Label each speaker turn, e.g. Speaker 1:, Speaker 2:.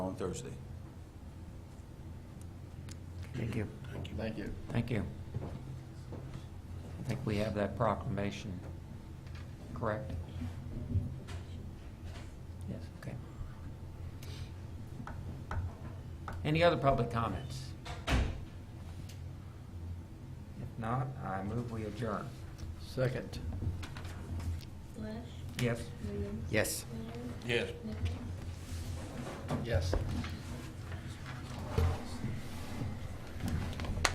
Speaker 1: Thursday.
Speaker 2: Thank you.
Speaker 3: Thank you.
Speaker 2: Thank you. I think we have that proclamation, correct? Yes, okay. Any other public comments? If not, I move we adjourn.
Speaker 3: Second.
Speaker 4: Lesh,
Speaker 2: Yes?
Speaker 4: Williams,
Speaker 5: Yes.
Speaker 4: Leonard,
Speaker 1: Yes.
Speaker 4: Nichols.
Speaker 3: Yes.